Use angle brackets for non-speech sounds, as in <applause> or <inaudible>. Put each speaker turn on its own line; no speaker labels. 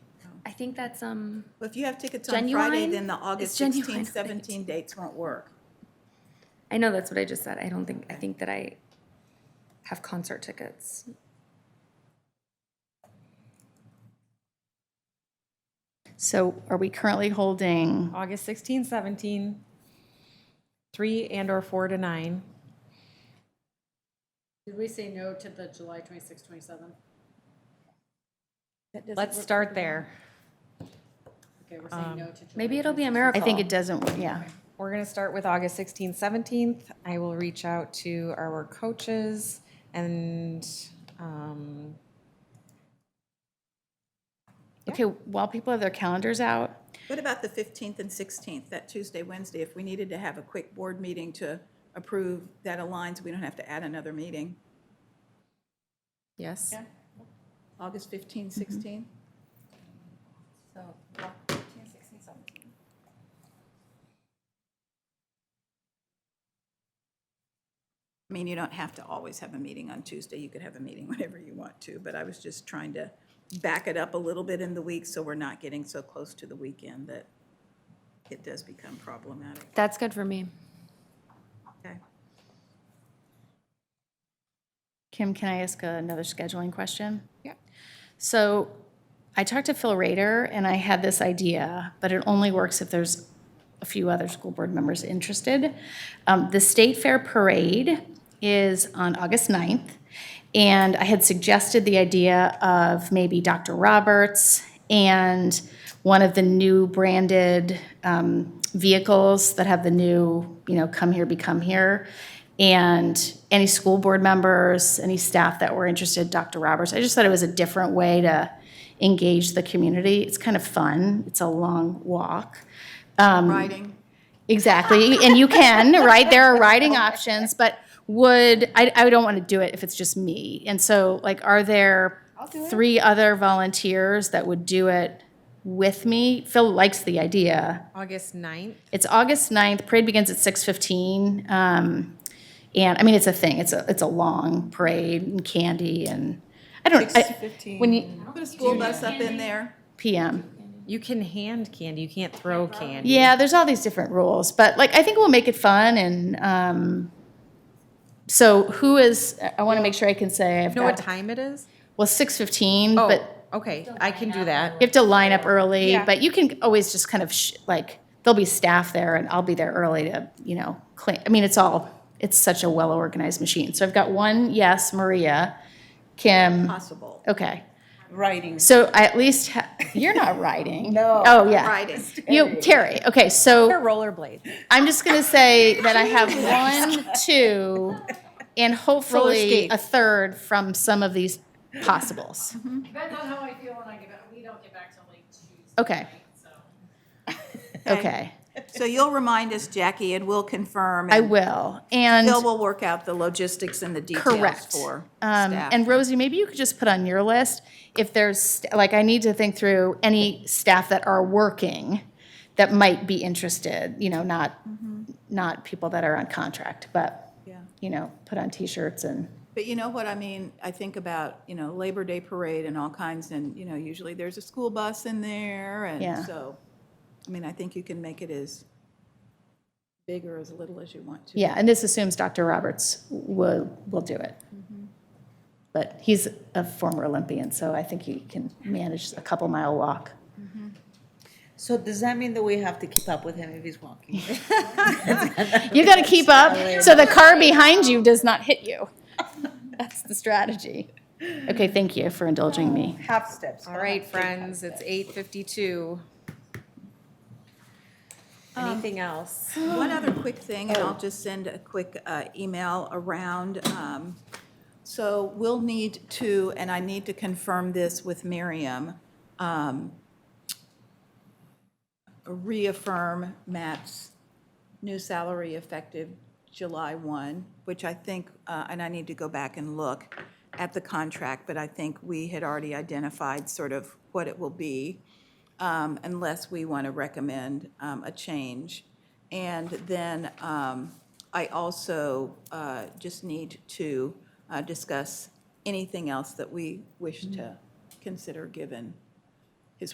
think that's, um,
Well, if you have tickets on Friday,
Genuine?
then the
It's
August
genuine,
16,
right.
17 dates won't work.
I know that's what I just said. I don't think, I think that I have concert tickets.
So are we currently holding,
August 16, 17, 3 and/or 4 to 9.
Did we say no to the July twenty-six, twenty-seven?
Let's start there.
Okay, we're saying no to July.
Maybe it'll be a
26th.
miracle.
I think it doesn't, yeah.
We're going to start with August 16, 17th. I will reach out to our coaches and, um,
Okay, while people have their calendars out,
What about the 15th and 16th, that Tuesday, Wednesday? If we needed to have a quick board meeting to approve that aligns, we don't have to add another meeting.
yes?
August 15,
Mm-hmm.
16? I mean, you don't have to always have a meeting on Tuesday. You could have a meeting <laughs> whenever you want to, but I was just trying to back it up a little bit in the week so we're not getting so close to the weekend that it does become problematic.
That's good for me.
Okay.
Kim, can I ask another scheduling question?
Yeah.
So I talked to Phil Rader and I had this idea, but it only works if there's a few other school board members interested. Um, the State Fair Parade is on August 9th. And I had suggested the idea of maybe Dr. Roberts and one of the new branded um, vehicles that have the new, you know, come here, become here. And any school board members, any staff that were interested, Dr. Roberts. I just thought it was a different way to engage the community. It's kind of fun. It's a long walk. Um,
Writing,
Exactly, and you can, right? There are riding options, but would, I, I don't want to do it if it's just me. And so, like, are there three other volunteers that would do it with me? Phil likes the idea.
August 9th.
It's August 9th, parade begins at 6:15. um, And, I mean, it's a thing, it's a, it's a long parade and candy and, I don't, I, when you,
put a school bus up in there.
PM.
You can hand candy, you can't throw candy.
Yeah, there's all these different rules, but like I think we'll make it fun and um, so who is? I- I want to make sure I can say I've
You know what
got-
time it is?
well six fifteen,
Oh,
but
okay, I can do that.
you have to line up early.
Yeah.
But you can always just kind of sh- like there'll be staff there, and I'll be there early to you know clean. I mean, it's all it's such a well organized machine. So I've got one yes, Maria, Kim.
Possible.
Okay,
writing.
so I at least ha- <laughs> you're not riding. no. Oh yeah,
Writing.
You Terry. Okay, so
Or rollerblades.
I'm just gonna say that I have one, two, and hopefully a third from some of these possibles.
Depends on how I feel when I get back, we don't get back till late Tuesday.
Okay.
night, So.
Okay,
So you'll remind us, Jackie, and we'll confirm.
I
and
will. And,
Phil will work out the logistics and the details
correct.
for
Um,
staff.
and Rosie, maybe you could just put on your list, if there's, st- like, I need to think through any staff that are working that might be interested, you know, not, not people that are on contract, but,
Mm-hmm. Yeah.
you know, put on T-shirts and.
But you know what I mean? I think about, you know, Labor Day Parade and all kinds, and, you know, usually there's a school bus in there,
Yeah.
and so, I mean, I think you can make it as big or as little as you want to.
Yeah, and this assumes Dr. Roberts will, will do it. But he's a former Olympian, so I think he can manage a couple mile <laughs> walk.
So does that mean that we have to keep up with him if he's walking? <laughs>
You gotta keep up so the car behind you does not hit you. <laughs> That's the strategy. Okay, thank you for indulging me.
Half steps.
All right, friends, it's 8:52. Anything else?
One other quick thing, and I'll just send a quick uh, email around. um, So we'll need to, and I need to confirm this with Miriam, um, reaffirm Matt's new salary effective July 1, which I think, uh, and I need to go back and look at the contract, but I think we had already identified sort of what it will be um, unless we want to recommend um, a change. And then um, I also uh, just need to uh, discuss anything else that we wish to consider given